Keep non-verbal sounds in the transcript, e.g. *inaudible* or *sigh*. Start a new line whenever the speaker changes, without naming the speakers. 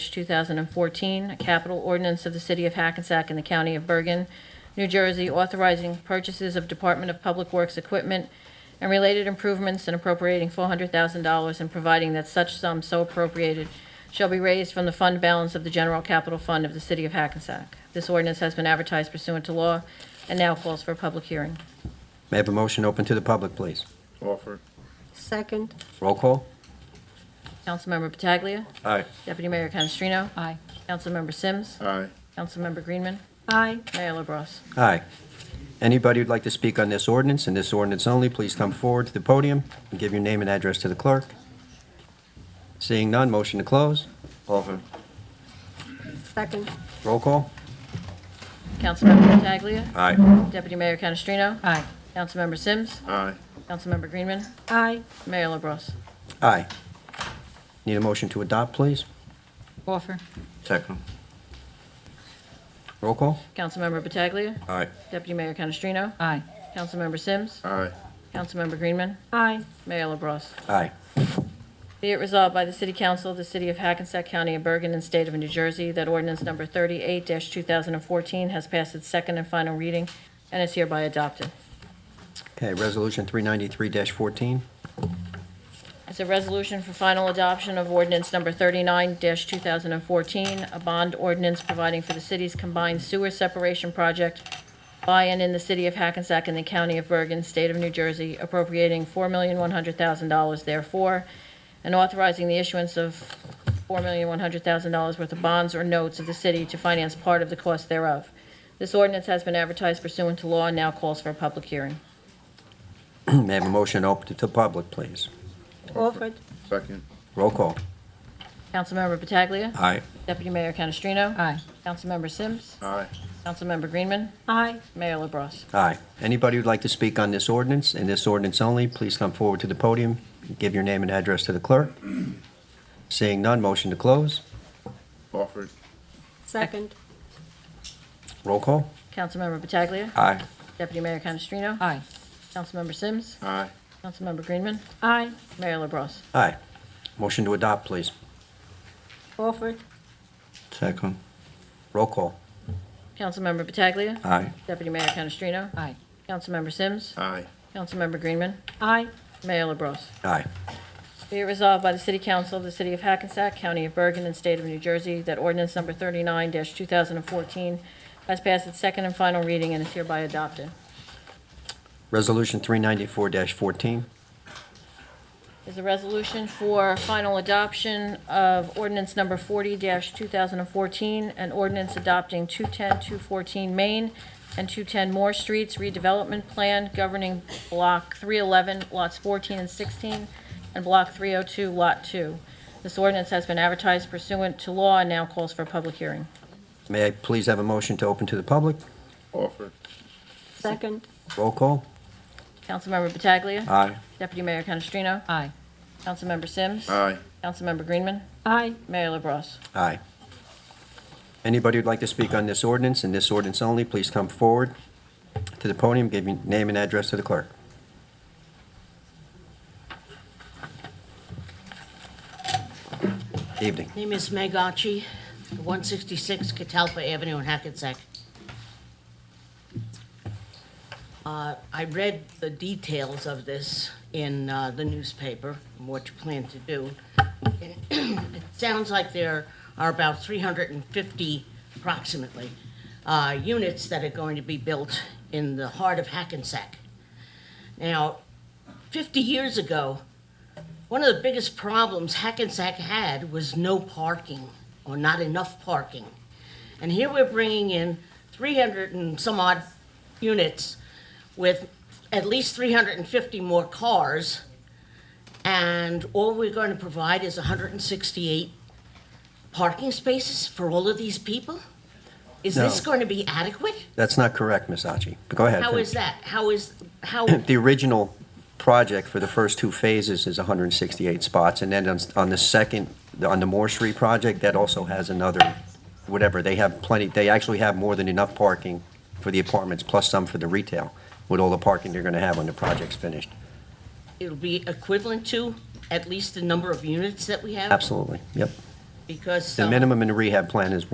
2014, a capital ordinance of the City of Hackensack and the County of Bergen, New Jersey, authorizing purchases of Department of Public Works equipment and related improvements and appropriating $400,000 and providing that such sum so appropriated shall be raised from the fund balance of the general capital fund of the City of Hackensack. This ordinance has been advertised pursuant to law and now calls for a public hearing.
May I have a motion open to the public, please?
Offer.
Second,
Roll call?
Councilmember Pataglia.
Aye.
Deputy Mayor Canestrino.
aye,
Councilmember Sims.
Aye.
Councilmember Greenman.
aye.
Mayor LaBrus.
Aye. Anybody who'd like to speak on this ordinance and this ordinance only, please come forward to the podium and give your name and address to the clerk. Seeing none, motion to close? Offer.
Second,
Roll call?
Councilmember Pataglia.
Aye.
Deputy Mayor Canestrino.
aye,
Councilmember Sims.
Aye.
Councilmember Greenman.
aye.
Mayor LaBrus.
Aye. Need a motion to adopt, please?
offer,
Second. Roll call?
Councilmember Pataglia.
Aye.
Deputy Mayor Canestrino.
aye,
Councilmember Sims.
Aye.
Councilmember Greenman.
Aye.
Mayor LaBrus.
Aye.
Be it resolved by the City Council of the City of Hackensack County of Bergen and State of New Jersey that ordinance number 38-2014 has passed its second and final reading and is hereby adopted.
Okay, Resolution 393-14.
It's a resolution for final adoption of ordinance number 39-2014, a bond ordinance providing for the city's combined sewer separation project by and in the City of Hackensack and the County of Bergen, State of New Jersey, appropriating $4,100,000 therefore, and authorizing the issuance of $4,100,000 worth of bonds or notes of the city to finance part of the cost thereof. This ordinance has been advertised pursuant to law and now calls for a public hearing.
*clears throat* May I have a motion open to the public, please?
Orford,
Second.
Roll call?
Councilmember Pataglia.
Aye.
Deputy Mayor Canestrino.
aye,
Councilmember Sims.
Aye.
Councilmember Greenman.
aye.
Mayor LaBrus.
Aye. Anybody who'd like to speak on this ordinance and this ordinance only, please come forward to the podium, give your name and address to the clerk. Seeing none, motion to close.
Offer.
Second,
Roll call.
Councilmember Pataglia.
Aye.
Deputy Mayor Canestrino.
aye,
Councilmember Sims.
Aye.
Councilmember Greenman.
aye.
Mayor LaBrus.
Aye. Motion to adopt, please.
Orford,
Second. Roll call.
Councilmember Pataglia.
Aye.
Deputy Mayor Canestrino.
aye,
Councilmember Sims.
Aye.
Councilmember Greenman.
aye.
Mayor LaBrus.
Aye.
Be it resolved by the City Council of the City of Hackensack, County of Bergen, and State of New Jersey that ordinance number 39-2014 has passed its second and final reading and is hereby adopted.
Resolution 394-14.
is a resolution for final adoption of ordinance number 40-2014, an ordinance adopting 210, 214 Main and 210 Moore Streets redevelopment plan governing Block 311, lots 14 and 16, and Block 302, Lot 2. This ordinance has been advertised pursuant to law and now calls for a public hearing.
May I please have a motion to open to the public?
Offer.
Second,
Roll call.
Councilmember Pataglia.
Aye.
Deputy Mayor Canestrino.
aye,
Councilmember Sims.
Aye.
Councilmember Greenman.
aye.
Mayor LaBrus.
Aye. Anybody who'd like to speak on this ordinance and this ordinance only, please come forward to the podium, give your name and address to the clerk. Evening.
Name is Meg Archie, 166 Catalpa Avenue in Hackensack. Uh, I read the details of this in uh, the newspaper, and what you plan to do. *clears throat* It sounds like there are about 350 approximately uh, units that are going to be built in the heart of Hackensack. Now, 50 years ago, one of the biggest problems Hackensack had was no parking or not enough parking. And here we're bringing in 300 and some odd units with at least 350 more cars. And all we're going to provide is 168 parking spaces for all of these people? Is this
No.
going to be adequate?
That's not correct, Ms. Achi. But Go ahead.
How is that? How is, how?
*clears throat* The original project for the first two phases is 168 spots, and then on- on the second, on the Moore Street project, that also has another, whatever, they have plenty, they actually have more than enough parking for the apartments, plus some for the retail, with all the parking they're going to have when the project's finished.
it'll be equivalent to at least the number of units that we have?
Absolutely, yep.
because
The
uh, some.
minimum in the rehab plan is